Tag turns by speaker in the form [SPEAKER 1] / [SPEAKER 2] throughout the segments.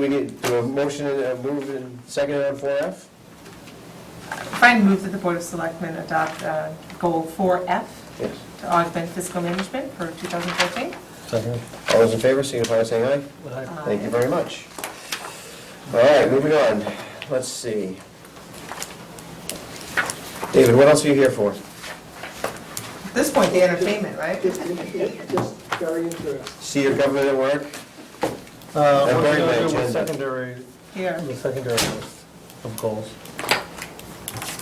[SPEAKER 1] we get do a motion and a move and second on four F?
[SPEAKER 2] Find move that the Board of Selectmen adopt uh, Goal 4F
[SPEAKER 1] Yes.
[SPEAKER 2] to augment fiscal management for 2014.
[SPEAKER 1] Second. All those in favor, signify by saying aye. Thank you very much. All right, moving on. Let's see. David, what else are you here for?
[SPEAKER 2] At this point, the entertainment, right?
[SPEAKER 3] It's, it's just very interesting.
[SPEAKER 1] See your government at work?
[SPEAKER 4] Uh,
[SPEAKER 1] I
[SPEAKER 4] What are
[SPEAKER 1] buried
[SPEAKER 4] you
[SPEAKER 1] my
[SPEAKER 4] going to do
[SPEAKER 1] agenda.
[SPEAKER 4] with secondary,
[SPEAKER 2] Here.
[SPEAKER 4] the secondary list of goals?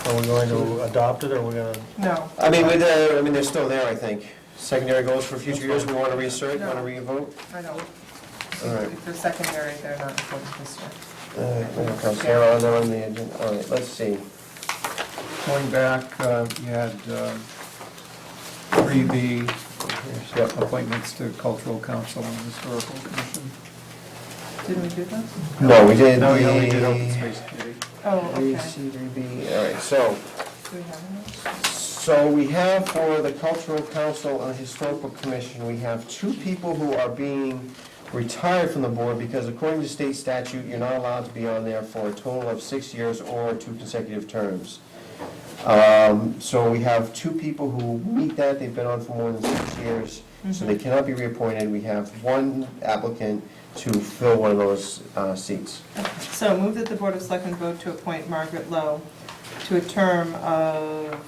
[SPEAKER 4] Are we going to adopt it, or we going to?
[SPEAKER 2] No.
[SPEAKER 1] I mean, with, uh, I mean, they're still there, I think. Secondary goals for future years, we want to reassert, want to revote?
[SPEAKER 2] I don't.
[SPEAKER 1] All right. Uh,
[SPEAKER 2] If they're secondary, they're not important this year.
[SPEAKER 1] Sarah, on there on the agenda, all right, let's see.
[SPEAKER 5] Going back, uh, you had three B,
[SPEAKER 1] Yep,
[SPEAKER 5] appointments to cultural council and historical commission.
[SPEAKER 2] Didn't we do those?
[SPEAKER 1] no, we did the.
[SPEAKER 5] No, we only did open space committee.
[SPEAKER 2] Oh,
[SPEAKER 1] We
[SPEAKER 2] okay.
[SPEAKER 1] see, we be- all right, so,
[SPEAKER 2] Do we have them?
[SPEAKER 1] so we have for the Cultural Council and Historical Commission, we have two people who are being retired from the board because according to state statute, you're not allowed to be on there for a total of six years or two consecutive terms. Um, So we have two people who meet that, they've been on for more than six years, so they cannot be reappointed. We have one applicant to fill one of those uh, seats.
[SPEAKER 2] So move that the Board of Selectmen vote to appoint Margaret Lowe to a term of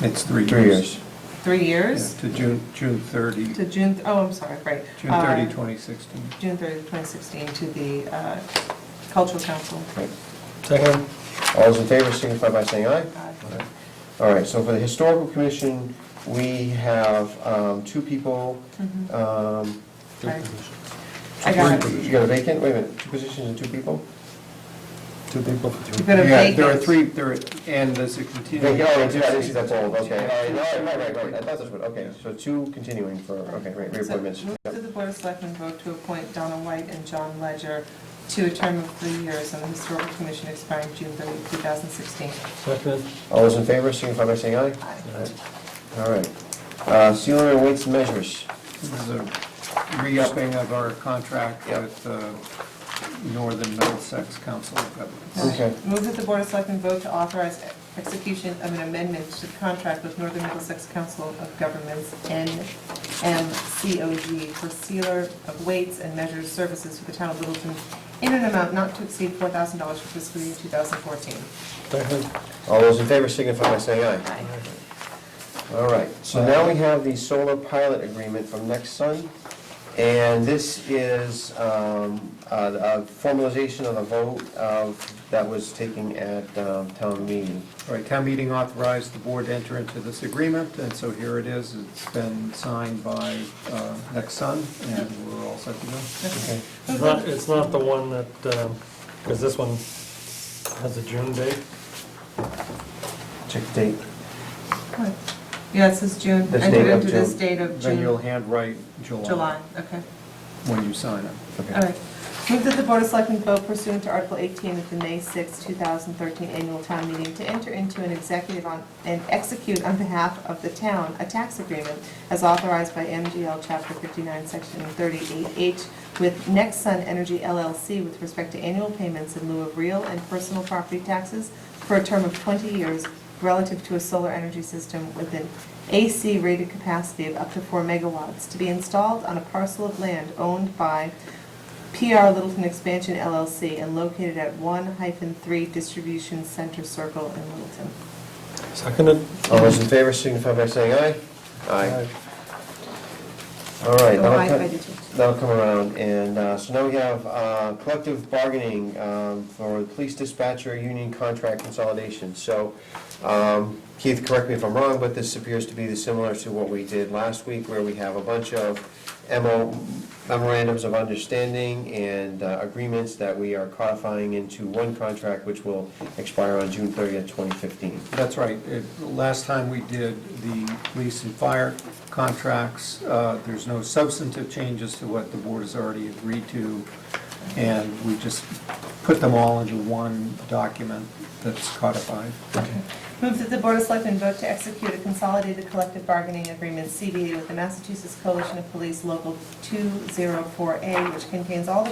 [SPEAKER 5] It's three years.
[SPEAKER 1] Three years.
[SPEAKER 2] three
[SPEAKER 5] Yeah,
[SPEAKER 2] years
[SPEAKER 5] To June, June thirty,
[SPEAKER 2] to June, oh, I'm sorry, right.
[SPEAKER 5] June
[SPEAKER 2] Uh,
[SPEAKER 5] thirty, twenty sixteen.
[SPEAKER 2] June 30, 2016, to the uh, Cultural Council.
[SPEAKER 1] Right.
[SPEAKER 4] Second.
[SPEAKER 1] All those in favor signify by saying aye.
[SPEAKER 2] Uh,
[SPEAKER 1] All right, so for the Historical Commission, we have um, two people.
[SPEAKER 2] mhm.
[SPEAKER 1] um,
[SPEAKER 2] Right. I got it.
[SPEAKER 1] You got a vacant, wait a minute, two positions and two people?
[SPEAKER 4] Two people for
[SPEAKER 2] You've got a
[SPEAKER 5] Yeah, there are
[SPEAKER 2] vacant.
[SPEAKER 5] three, there, are- and there's a continuing.
[SPEAKER 1] Vacant, oh, I did- I did see that's old, okay. All right, all right, right, right, right, I thought that's what, okay, so two continuing for, okay, right,
[SPEAKER 2] So,
[SPEAKER 1] reappointments.
[SPEAKER 2] Move
[SPEAKER 1] Yep.
[SPEAKER 2] to the Board of Selectmen vote to appoint Donna White and John Ledger to a term of three years on the Historical Commission expiring June 30, 2016.
[SPEAKER 4] Second.
[SPEAKER 1] All those in favor signify by saying aye. All right. Uh, Sealer and weights and measures.
[SPEAKER 5] This is a re-upping of our contract
[SPEAKER 1] Yep.
[SPEAKER 5] with uh, Northern Middlesex Council of Governments.
[SPEAKER 1] Okay.
[SPEAKER 2] Move that the Board of Selectmen vote to authorize execution of an amendment to the contract with Northern Middlesex Council of Governments, NMCOG, for sealer of weights and measures services for the town of Littleton in an amount not to exceed $4,000 for fiscal year 2014.
[SPEAKER 4] Second.
[SPEAKER 1] All those in favor signify by saying aye.
[SPEAKER 2] Aye.
[SPEAKER 1] All right, so now we have the solar pilot agreement from Next Sun, and this is um, a a formalization of the vote of, that was taken at um, town meeting.
[SPEAKER 5] All right, town meeting authorized the board to enter into this agreement, and so here it is. It's been signed by uh, Nexun, and we're all set to go.
[SPEAKER 1] Okay.
[SPEAKER 4] It's not, it's not the one that, because this one has a June date.
[SPEAKER 1] Check the date.
[SPEAKER 2] Yeah, it says June,
[SPEAKER 1] This
[SPEAKER 2] entered
[SPEAKER 1] date of
[SPEAKER 2] into this
[SPEAKER 1] June.
[SPEAKER 2] date of
[SPEAKER 5] Then you'll
[SPEAKER 2] June,
[SPEAKER 5] handwrite July.
[SPEAKER 2] July, okay.
[SPEAKER 5] When you sign it.
[SPEAKER 2] All right. Move that the Board of Selectmen vote pursuant to Article 18 of the May 6, 2013 annual town meeting to enter into an executive on, and execute on behalf of the town a tax agreement as authorized by MGL Chapter 59, Section 38H with Nexsun Energy LLC with respect to annual payments in lieu of real and personal property taxes for a term of 20 years relative to a solar energy system with an AC rated capacity of up to 4 megawatts to be installed on a parcel of land owned by PR Littleton Expansion LLC and located at 1 hyphen 3 Distribution Center Circle in Littleton.
[SPEAKER 4] Seconded.
[SPEAKER 1] All those in favor signify by saying aye. All right.
[SPEAKER 2] Oh, I-
[SPEAKER 1] that'll
[SPEAKER 2] I
[SPEAKER 1] cut-
[SPEAKER 2] did too.
[SPEAKER 1] That'll come around, and uh, so now we have uh, collective bargaining um, for police dispatcher union contract consolidation. So um, Keith, correct me if I'm wrong, but this appears to be similar to what we did last week, where we have a bunch of MO memorandums of understanding and uh, agreements that we are codifying into one contract, which will expire on June 30th, 2015.
[SPEAKER 5] That's right. It- Last time we did the police and fire contracts, uh, there's no substantive changes to what the board has already agreed to. And we just put them all into one document that's codified.
[SPEAKER 2] Move that the Board of Selectmen vote to execute a consolidated collective bargaining agreement, CBA, with the Massachusetts Coalition of Police Local 204A, which contains all the